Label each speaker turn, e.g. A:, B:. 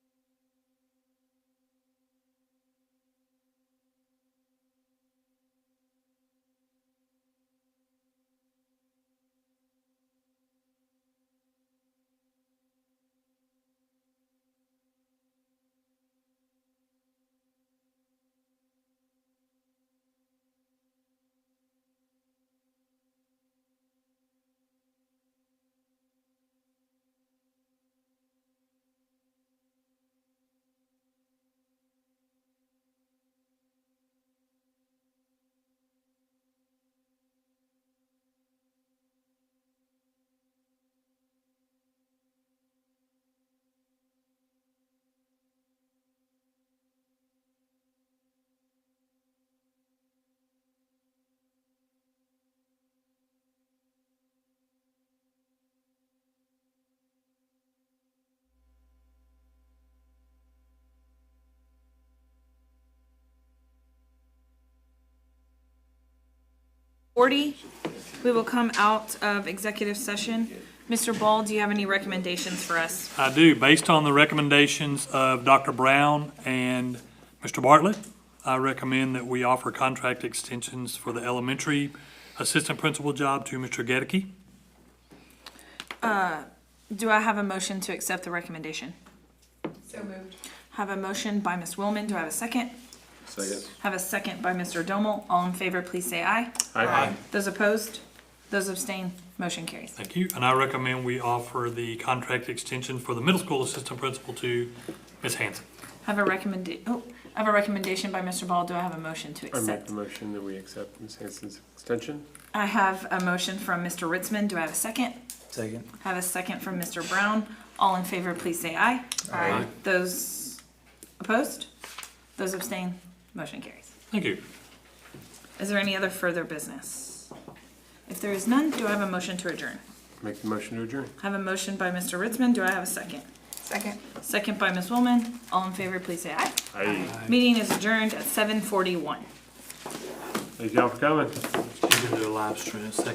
A: forty. We will come out of executive session. Mr. Ball, do you have any recommendations for us?
B: I do. Based on the recommendations of Dr. Brown and Mr. Bartlett, I recommend that we offer contract extensions for the elementary assistant principal job to Mr. Gedeke.
A: Do I have a motion to accept the recommendation?
C: So moved.
A: Have a motion by Ms. Willman. Do I have a second?
D: Second.
A: Have a second by Mr. Dommel. All in favor, please say aye.
D: Aye.
A: Those opposed? Those abstain? Motion carries.
B: Thank you. And I recommend we offer the contract extension for the middle school assistant principal to Ms. Hanson.
A: Have a recommend, oh, I have a recommendation by Mr. Ball. Do I have a motion to
D: I make
A: accept?
D: the motion that we accept Ms. Hanson's extension.
A: I have a motion from Mr. Ritzman. Do I have a second?
E: Second.
A: Have a second from Mr. Brown. All in favor, please say aye.
C: Aye.
A: Those opposed? Those abstain? Motion carries.
B: Thank you.
A: Is there any other further business? If there is none, do I have a motion to adjourn?
D: Make the motion to adjourn.
A: I have a motion by Mr. Ritzman. Do I have a second?
C: Second.
A: Second by Ms. Woolman. All in favor, please say aye.
D: Aye.
A: Meeting is adjourned at seven forty-one.
D: Thank y'all for coming.
E: You can do a live stream, second.